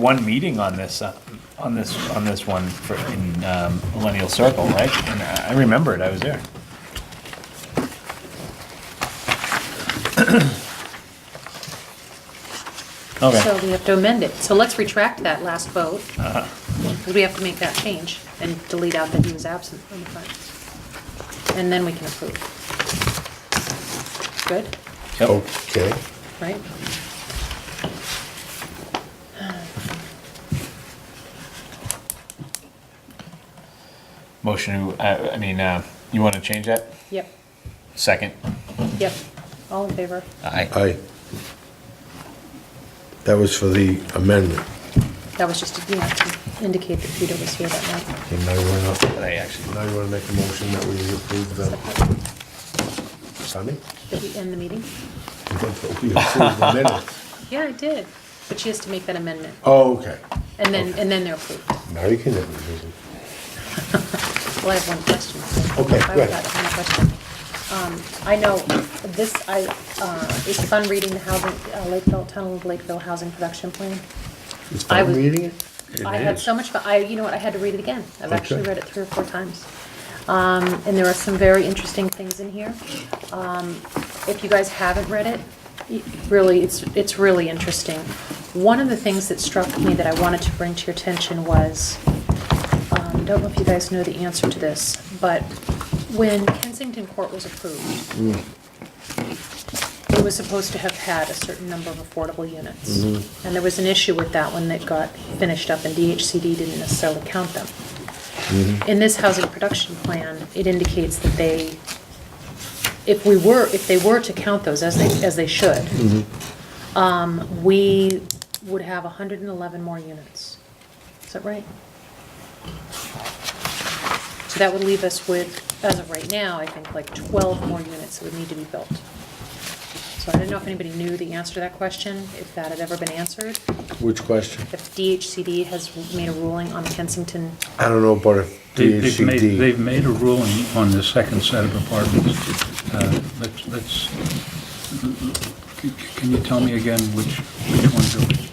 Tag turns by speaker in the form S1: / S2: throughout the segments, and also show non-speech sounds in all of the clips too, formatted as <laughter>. S1: one meeting on this, uh, on this, on this one for, in um, Millennial Circle, right? And I I remember it, I was there. <clears throat>
S2: So
S1: Okay,
S2: we have to amend it. So let's retract that last vote, because we have to make that change and delete out that he was absent from the front. And then we can approve. Good,
S1: yep,
S3: Okay,
S2: right?
S1: motion, to, uh, I mean, uh, you want to change that?
S2: Yep,
S1: Second?
S2: yep. All in favor?
S1: Aye.
S3: I, that was for the amendment,
S2: That was just, you know, to indicate that Peter was here that night.
S3: and now you wanna,
S1: I actually,
S3: now you wanna make a motion that we approve the, Sunday?
S2: Did we end the meeting?
S3: We approve the minutes.
S2: Yeah, I did, but she has to make that amendment,
S3: <laughs> Oh, okay,
S2: and then, and then they're approved.
S3: now you can have the meeting.
S2: Well, I have one question.
S3: Okay,
S2: I've
S3: go ahead.
S2: got one question. Um, I know this, I, uh, it's fun reading the housing, uh, Lakeville, Tunnel of Lakeville Housing Production Plan.
S3: It's
S2: I
S3: fun
S2: was-
S3: reading it?
S2: I had so much, fun. I, you know what, I had to read it again. I've actually
S3: Okay.
S2: read it three or four times. Um, And there are some very interesting things in here. Um, If you guys haven't read it, y- really, it's, it's really interesting. One of the things that struck me that I wanted to bring to your attention was, um, don't know if you guys know the answer to this, but when Kensington Court was approved, it was supposed to have had a certain number of affordable units. And there was an issue with that one that got finished up, and DHCD didn't necessarily count them.
S3: Mm-hmm.
S2: In this housing production plan, it indicates that they, if we were, if they were to count those as they, as they should, um, we would have 111 more units. Is that right? So that would leave us with, as of right now, I think like 12 more units that would need to be built. So I didn't know if anybody knew the answer to that question, if that had ever been answered,
S3: Which question?
S2: if DHCD has made a ruling on Kensington.
S3: I don't know about if
S4: They- They've made,
S3: DHCD,
S4: they've made a ruling on the second set of apartments. Uh, Let's, let's, c- can you tell me again which, which ones are which?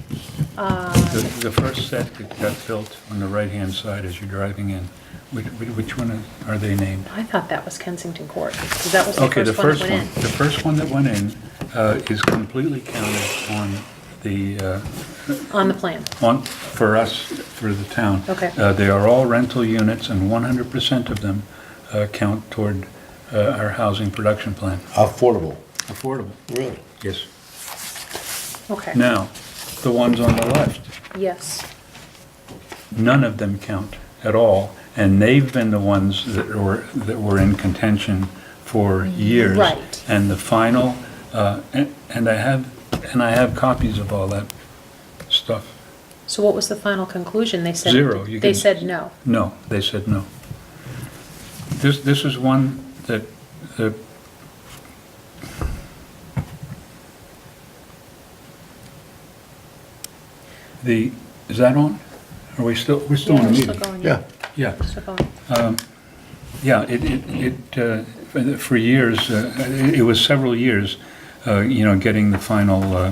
S2: Uh,
S4: The- The first set that got built on the right-hand side as you're driving in, which, which one are- are they named?
S2: I thought that was Kensington Court, because that was the
S4: Okay, the
S2: first one that
S4: first
S2: went
S4: one,
S2: in.
S4: the first one that went in uh, is completely counted on the, uh,
S2: On the plan,
S4: on, for us, for the town.
S2: Okay.
S4: Uh, They are all rental units, and 100% of them uh, count toward uh, our housing production plan.
S3: affordable.
S4: Affordable.
S3: Really?
S4: Yes.
S2: okay.
S4: Now, the ones on the left,
S2: Yes,
S4: none of them count at all, and they've been the ones that were, that were in contention for years.
S2: Right.
S4: And the final, uh, and and I have, and I have copies of all that stuff.
S2: so what was the final conclusion? They said.
S4: Zero, you
S2: They
S4: can-
S2: said no.
S4: No, they said no. This, this is one that, that the, is that on? Are we still, we're still
S2: Yeah,
S4: on a
S2: we're still
S4: meeting?
S2: going.
S3: Yeah,
S4: Yeah,
S2: Still going.
S4: yeah, it, it, it, uh, for the- for years, uh, it it was several years, uh, you know, getting the final uh,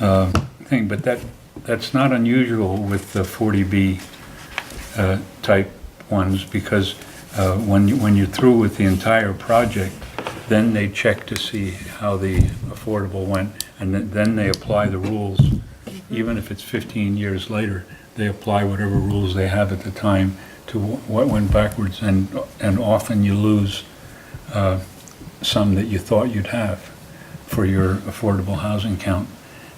S4: uh, thing, but that, that's not unusual with the 40B uh, type ones, because uh, when, you- when you're through with the entire project, then they check to see how the affordable went, and then- then they apply the rules, even if it's 15 years later, they apply whatever rules they have at the time to wh- what went backwards, and, and often you lose uh, some that you thought you'd have for your affordable housing count.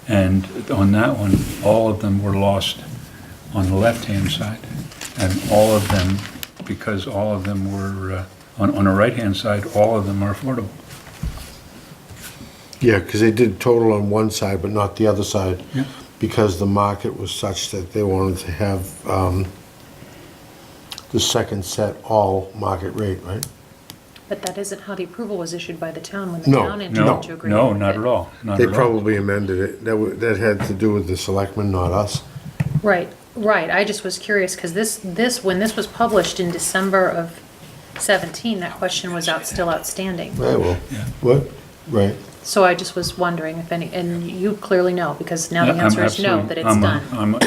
S4: And on that one, all of them were lost on the left-hand side. And all of them, because all of them were, uh, on, on the right-hand side, all of them are affordable.
S3: yeah, because they did total on one side, but not the other side.
S4: Yeah.
S3: Because the market was such that they wanted to have um, the second set all market rate, right?
S2: But that isn't how the approval was issued by the town when the
S3: No,
S2: town entered
S4: No,
S2: into agreement.
S4: no,
S2: with
S4: not
S2: it.
S4: at all, not
S3: They
S4: at all.
S3: probably amended it. That, wa- that had to do with the selectmen, not us.
S2: Right, right, I just was curious, because this, this, when this was published in December of 17, that question was out, still outstanding.
S3: I will.
S4: Yeah.
S3: What? Right.
S2: So I just was wondering if any, and you clearly know, because now the
S4: I'm
S2: answer is no,
S4: absolutely-
S2: that it's
S4: I'm a-
S2: done.
S4: I'm a-